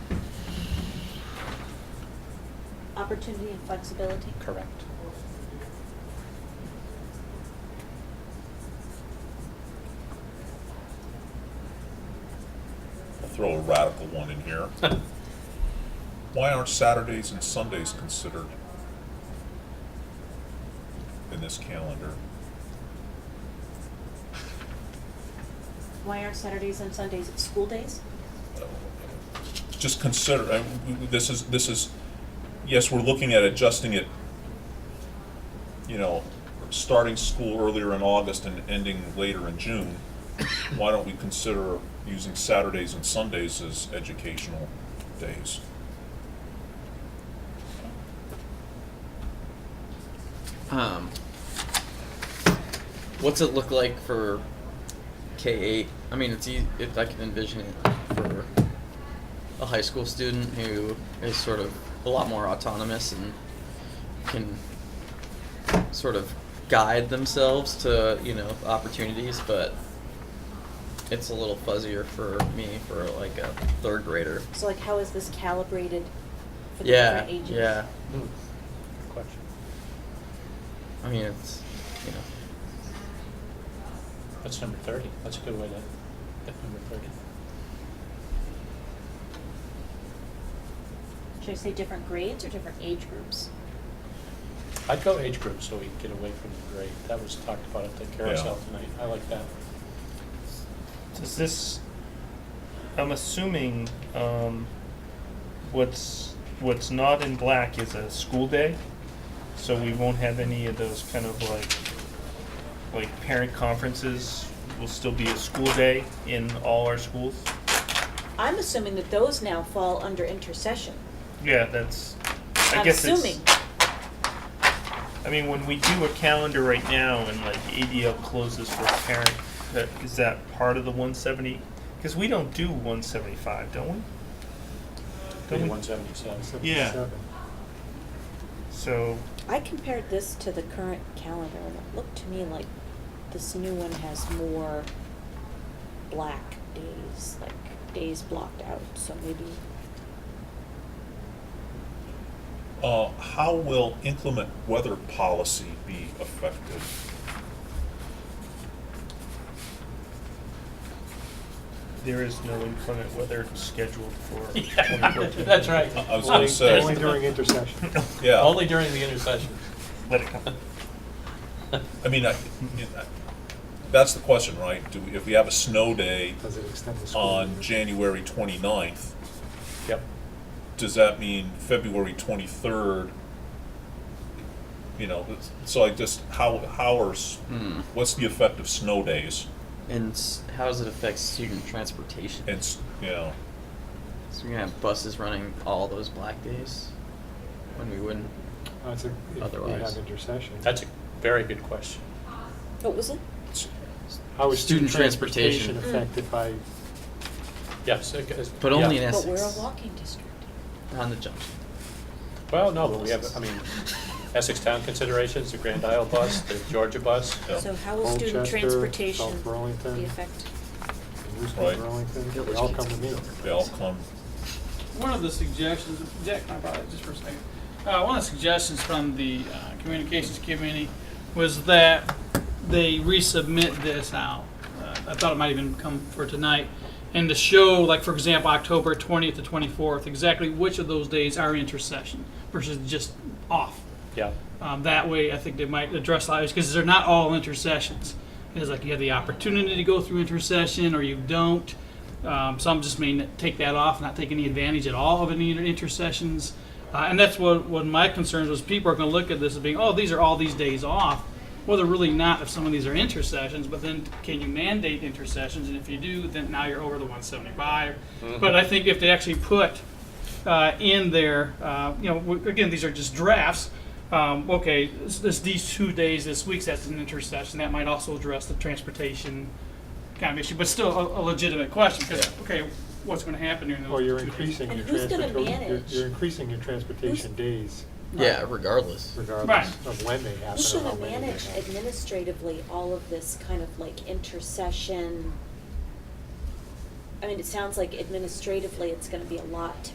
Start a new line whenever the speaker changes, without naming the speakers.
opportunity and flexibility?
Correct.
I'll throw a radical one in here. Why aren't Saturdays and Sundays considered in this calendar?
Why aren't Saturdays and Sundays school days?
Just consider, I- w- w- this is, this is, yes, we're looking at adjusting it, you know, starting school earlier in August and ending later in June. Why don't we consider using Saturdays and Sundays as educational days?
Um, what's it look like for K eight? I mean, it's ea- if I can envision it for a high school student who is sort of a lot more autonomous and can sort of guide themselves to you know opportunities, but it's a little fuzzier for me for like a third grader.
So like, how is this calibrated for the
Yeah,
different ages?
yeah.
Good question.
I mean, it's you know
That's number thirty. That's a good way to get number thirty.
Should I say different grades or different age groups?
I'd go age group so we can get away from the grade. That was talked about at the carousel
Yeah.
tonight. I like that.
Does this, I'm assuming, um, what's, what's not in black is a school day? So we won't have any of those kind of like, like parent conferences will still be a school day in all our schools?
I'm assuming that those now fall under intercession.
Yeah, that's, I
I'm
guess it's.
assuming.
I mean, when we do a calendar right now and like ADL closes for a parent, that, is that part of the one seventy? Cause we don't do one seventy-five, don't we? Don't we?
One seventy-seven.
Yeah. So,
I compared this to the current calendar, and it looked to me like this new one has more black days, like days blocked out, so maybe,
Uh, how will inclement weather policy be affected?
there is no inclement weather scheduled for twenty fourteen.
That's right.
I was gonna
Only-
say-
Only during intercession.
Uh, Yeah.
Only during the intercession.
Let it come.
I mean, I, I- that's the question, right? Do, we- if we have a snow day
Does it extend the school?
on January 29th,
Yep.
does that mean February twenty-third? You know, it's- so I just, how, how are, s-
hmm.
what's the effect of snow days?
And s- how does it affect student transportation?
And, s- you know,
so you're gonna have buses running all those black days when we wouldn't.
Uh, it's a- If we
Otherwise.
have intercession.
That's a very good question.
what was it?
it's-
How is
Student
student
transportation.
transportation affected by,
Yes. it goes-
But only
yeah.
in
But
Essex.
we're a walking district.
On the junction.
Well, no, but we have, I mean, Essex Town considerations, the Grand Isle bus, the Georgia bus.
Yeah.
So how will student
Colchester,
transportation
South Burlington.
be affected?
Right.
Houston, Burlington, they all come to me.
they all come,
One of the suggestions, Jack, can I borrow that just for a second? Uh, one of the suggestions from the uh, communications committee was that they resubmit this out. Uh, I thought it might even come for tonight. And to show, like, for example, October 20th to 24th, exactly which of those days are intercession versus just off.
Yeah.
Um, that way, I think they might address a lot because they're not all intercessions. It's like you have the opportunity to go through intercession or you don't. Um, some just may n- take that off, not take any advantage at all of any inter- intercessions. Uh, and that's what, what my concerns was people are going to look at this as being, oh, these are all these days off. Well, they're really not if some of these are intercessions, but then can you mandate intercessions? And if you do, then now you're over the 175. But I think if they actually put uh, in there. Uh, you know, w- again, these are just drafts. Um, okay, this, this, these two days, this week's that's an intersection that might also address the transportation kind of issue, but still a, a legitimate question because okay, what's going to happen during those?
Or Oh, you're
two days?
increasing
And
your
who's gonna
transport, you're,
manage?
you're increasing your transportation days
Yeah, regardless.
regardless
Right.
of when they happen
Who's
or how
gonna
many they
manage
happen.
administratively all of this kind of like intercession? I mean, it sounds like administratively, it's gonna be a lot to